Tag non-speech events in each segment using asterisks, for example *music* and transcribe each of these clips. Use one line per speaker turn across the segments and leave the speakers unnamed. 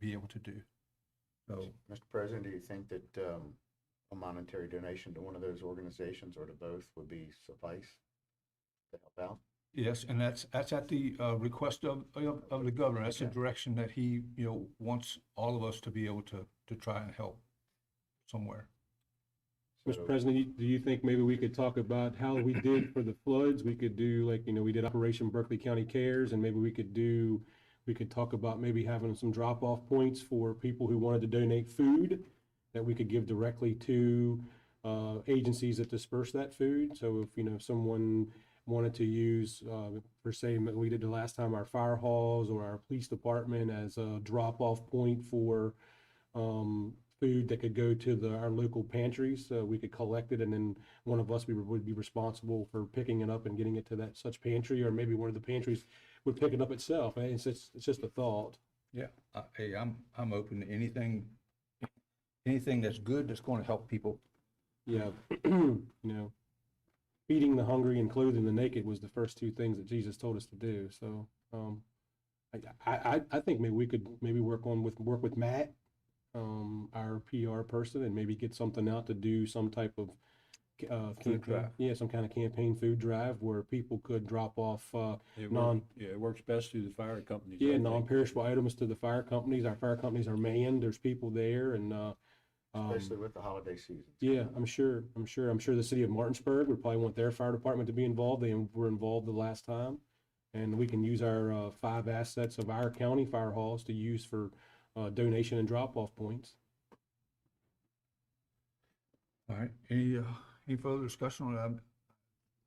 be able to do. So,
Mr. President, do you think that um, a monetary donation to one of those organizations or to both would be suffice to help out?
yes, and that's, that's at the uh, request of, of of the governor. That's the direction that he, you know, wants all of us to be able to, to try and help somewhere.
So-
Mr. President, you- do you think maybe we could talk about how we did for the floods? We could do like, you know, we did Operation Berkeley County Cares and maybe we could do, we could talk about maybe having some drop-off points for people who wanted to donate food that we could give directly to uh, agencies that disperse that food. So if, you know, someone wanted to use, uh, per se, what we did the last time, our fire halls or our police department as a drop-off point for um, food that could go to the, our local pantries, so we could collect it, and then one of us we would be responsible for picking it up and getting it to that such pantry, or maybe one of the pantries would pick it up itself. And It's just, it's just a thought.
Yeah, I- Uh, hey, I'm, I'm open to anything, anything that's good that's going to help people.
Yeah, *clears throat* you know, feeding the hungry and clothing the naked was the first two things that Jesus told us to do. So, um, I, I, I- I think maybe we could maybe work on with work with Matt, um, our PR person, and maybe get something out to do some type of uh, campaign,
drive.
yeah, some kind of campaign food drive where people could drop off uh,
It
Non-
works, yeah, it works best through the fire companies. I
yeah,
think.
non-perishable items to the fire companies. Our fire companies are manned. There's people there, and uh, um,
Especially with the holiday season.
Yeah, I'm sure, I'm sure, I'm sure the city of Martinsburg would probably want their fire department to be involved. They were involved the last time. And we can use our uh, five assets of our county fire halls to use for uh, donation and drop-off points.
All right, any, uh, any further discussion on that?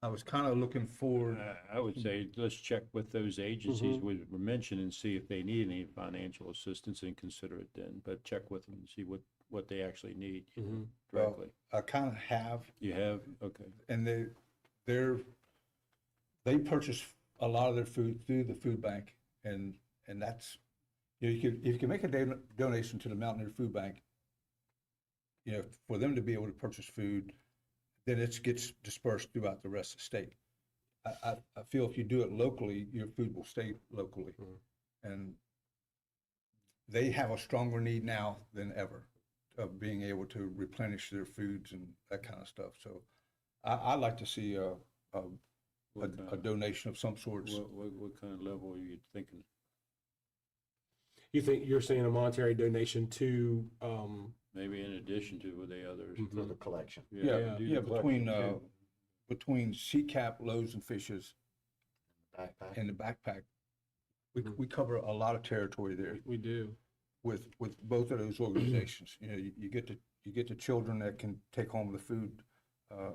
I was kind of looking for,
Uh, I- I would say, let's check with those agencies we were mentioned and see if they need any financial assistance and consider it then, but check with them and see what, what they actually need
Mm-hmm.
Well-
directly.
I kind of have,
You have, okay.
and they, they're, they purchase a lot of their food through the food bank, and, and that's, you know, you could, if you can make a don- donation to the Mountaineer Food Bank, you know, for them to be able to purchase food, then it gets dispersed throughout the rest of the state. I, I, I feel if you do it locally, your food will stay locally,
Mhm.
and they have a stronger need now than ever of being able to replenish their foods and that kind of stuff, so I, I'd like to see a, a,
What kind
a- a
of-
donation of some sorts.
What, what, what kind of level are you thinking?
You think, you're saying a monetary donation to, um,
Maybe in addition to with the others?
Mm-hmm.
for the collection.
Yeah,
Hmm. Yeah,
do the
yeah, between, uh,
collection too.
between Cap, Loaves and Fishes
Backpack.
and the backpack, we,
Mm-hmm.
Mhm.
we cover a lot of territory there
we do.
with, with both of those organizations. You know, you, you get the, you get the children that can take home the food. uh,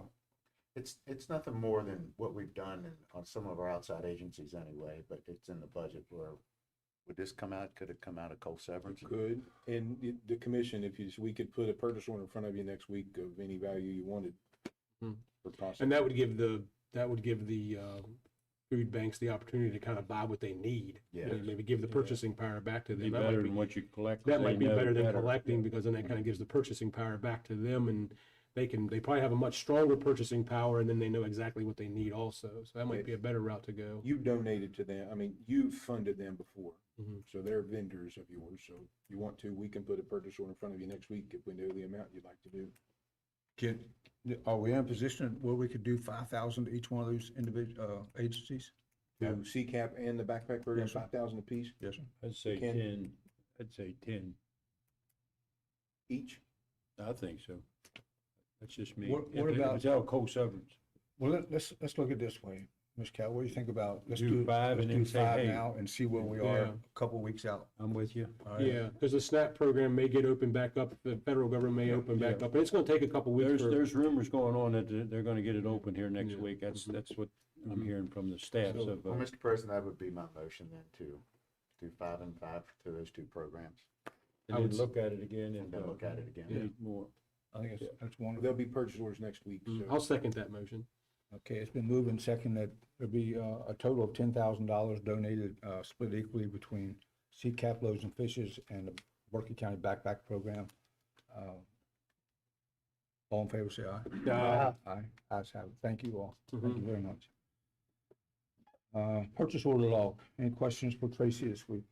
It's, it's nothing more than what we've done in- on some of our outside agencies anyway, but it's in the budget where, would this come out, could it come out of coal severance?
Could, and the, the commission, if you, we could put a purchase order in front of you next week of any value you wanted.
Hmm.
For possible,
And that would give the, that would give the um, food banks the opportunity to kind of buy what they need. You know,
Yeah.
Maybe give the purchasing power back to
Be
them. That might
better
be-
than what you collect.
that
they
might be
know
better than collecting because then that kind of gives the purchasing power back to them and they can, they probably have a much stronger purchasing power and then they know exactly what they need also. So that might be a better route to go.
you donated to them, I mean, you funded them before,
Mm-hmm.
Mhm.
so they're vendors of yours, so you want to, we can put a purchase order in front of you next week if we know the amount you'd like to do.
Can, are we in a position where we could do five thousand to each one of those individual, uh, agencies?
To CCAP and the backpack program,
Yes, sir.
five thousand apiece
Yes, sir.
I'd say
Ken?
ten, I'd say ten.
each?
I think so. That's just me.
What-
If
what
it- if
about-
It's out of coal severance.
Well, let- let's, let's look at this way. Ms. Cal, what do you think about, let's
Do
do,
five
let's
and
do
then say,
five
hey.
now and see where we are
Yeah.
a couple weeks out.
I'm with you.
All right?
Yeah, because the SNAP program may get opened back up, the federal government may open back
yeah.
up. and It's going to take a couple
There's,
weeks for,
there's rumors going on that they're- they're gonna get it open here next
Yeah.
week. That's,
Mhm.
that's what I'm hearing from the staffs
So-
of,
Well,
uh,
Mr. President, that would be my motion then to do five and five to those two programs
I
and
would
then
s-
look at it again
and
and.
then look at it again.
Need more.
I think that's, that's wonderful. Mm-hmm.
There'll be purchase orders next week,
Mm,
so
Mm-hmm.
I'll second that motion.
Okay, it's been moved and second that there'll be uh, a total of ten thousand dollars donated, uh, split equally between Sea Cap Loaves and Fishes and the Berkeley County Backpack Program. Uh, All in favor, say aye.
Aye.
Aye, ayes have it. Thank you all. Thank
Mm-hmm.
Mhm.
you very much. Uh, Purchase order log. Any questions for Tracy this week?